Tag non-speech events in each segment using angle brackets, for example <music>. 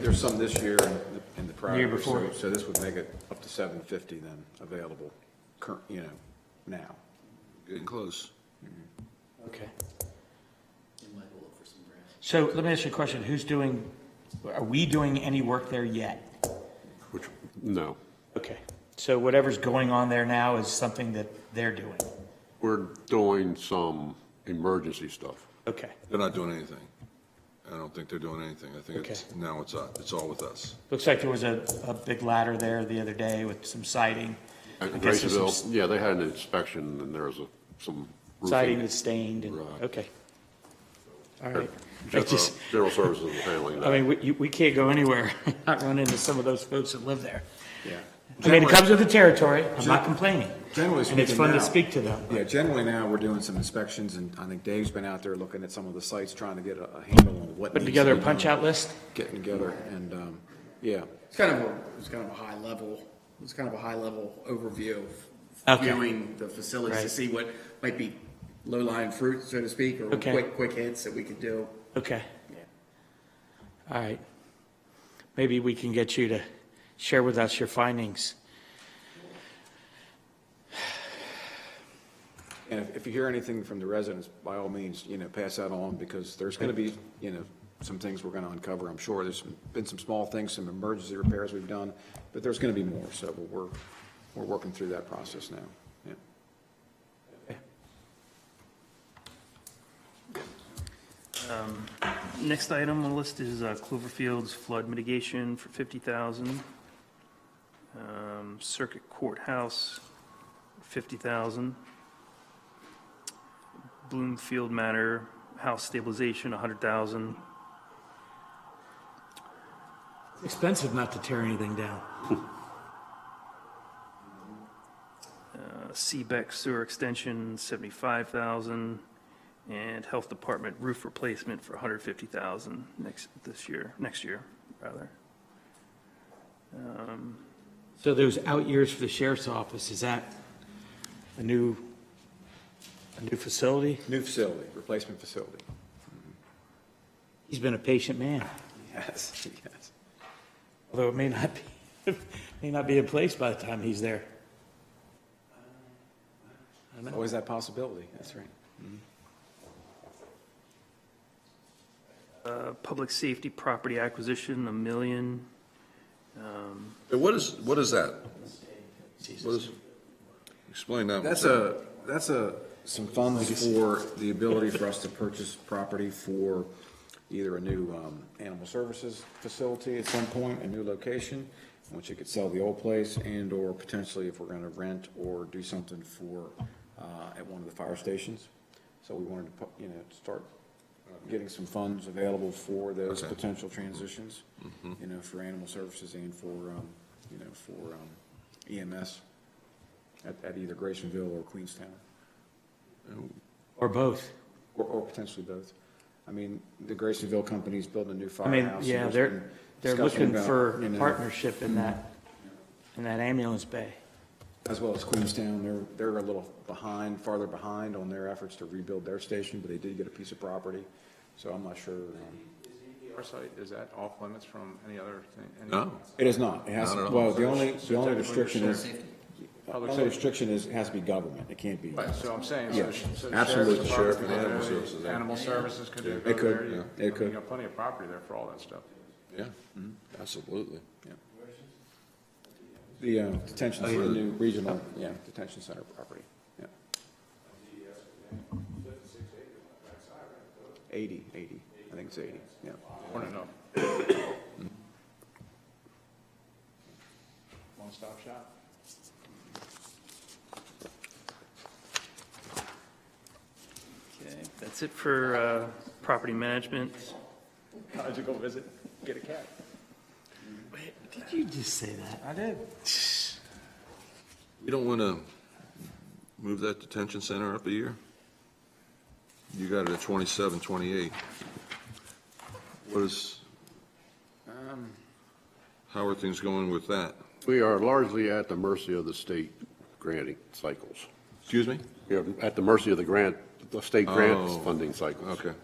There's some this year and the- and the prior. The year so- before. So this would make it up to seven fifty then, available, current, you know, now. Getting close. Okay. It might go up for some grants. So let me ask you a question. Who's doing, are we doing any work there yet? Which, no. Okay. So whatever's going on there now is something that they're doing. We're doing some emergency stuff. Okay. They're not doing anything. I don't think they're doing anything. I think it's, Okay. now it's, uh, it's all with us. Looks like there was a, a big ladder there the other day with some siding. At I guess there's some Graceville, yeah, they had an inspection and there was a- some roofing. Siding that's stained and, Right. okay. All right. I General just, uh, General Services was handling I <laughs> that. mean, we, you- we can't go anywhere, <laughs> and not run into some of those folks that live there. Yeah. I mean, it comes with the territory. I'm not complaining. Generally And it's speaking fun to now- speak to them. Yeah, generally now, we're doing some inspections, and I think Dave's been out there looking at some of the sites, trying to get a a handle on what. Putting needs to together a be done. punch-out list? Getting together, and, um, yeah, It's kind of a, it's kind of a high level, it's kind of a high level overview of Okay. viewing the facilities to Right. see what might be low lying fruit, so to speak, or Okay. quick, quick hits that we could do. Okay. All right. Maybe we can get you to share with us your findings. and if, if you hear anything from the residents, by all means, you know, pass that on, because there's gonna be, you know, some things we're gonna uncover, I'm sure, there's been some small things, some emergency repairs we've done, but there's gonna be more, so we're, we're working through that process now, yeah. Next item on the list is uh, Cloverfield's flood mitigation for 50,000. Um, Circuit Courthouse, 50,000. Bloomfield Manor House stabilization, 100,000. It's Expensive not to tear anything down. Uh, Seebeck Sewer Extension, 75,000. And Health Department roof replacement for 150,000 next, this year, next year, rather. So those out years for the sheriff's office, is that a new, a new facility? New facility, replacement facility. <laughs> He's been a patient man, Yes, yes. although it may not be, <laughs> may not be in place by the time he's there. Always that possibility, that's right. Uh, Public safety property acquisition, a million. And what is, what is that? What is, explain that. one, That's sir. a, that's a, some funds for the ability for us to purchase property for either a new, um, animal services facility at some point, a new location, which you could sell the old place and or potentially if we're gonna rent or do something for, uh, at one of the fire stations. So we wanted to, put- you know, start uh, getting some funds available for those Okay. potential transitions, you know, for animal services and for, um, you know, for, um, EMS at, at either Graysonville or Queenstown, Or both. or, or potentially both. I mean, the Graysonville company's building a new I mean, firehouse. yeah, and there's they're, been they're discussion looking about, for you know, partnership in that, in that ambulance bay. As well as Queenstown, they're, they're a little behind, farther behind on their efforts to rebuild their station, but they did get a piece of property, so I'm not sure. um, Our site, is that off limits from any other thing? any- No, It is not, it has, Not at all. well, the only, the only restriction you're is, the Public only safety. restriction is, it has to be government, it can't be. Right, so I'm saying, Yeah, so sh- so the absolutely. sheriff's Sheriff department, and could do animal it, services, yeah. animal services could do it. It go could, there, you- yeah, it I mean, could. You got plenty of property there for all that stuff. yeah, absolutely. The uh, detention, the new regional, yeah, detention center property, yeah. Eighty, eighty, I think it's eighty, yeah. Or no, no. One-stop shop. <laughs> Okay, that's it for uh, property management. How'd you go visit, get a cat? Did you just say that? I did. You don't want to move that detention center up a year? You got it at 27, 28. What is, how are things going with that? We are largely at the mercy of the state granting cycles. Excuse me? We are at the mercy of the grant, the state Oh, grant funding cycles. Okay,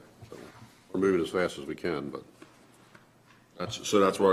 We're moving as fast as we can, but. that's, so that's why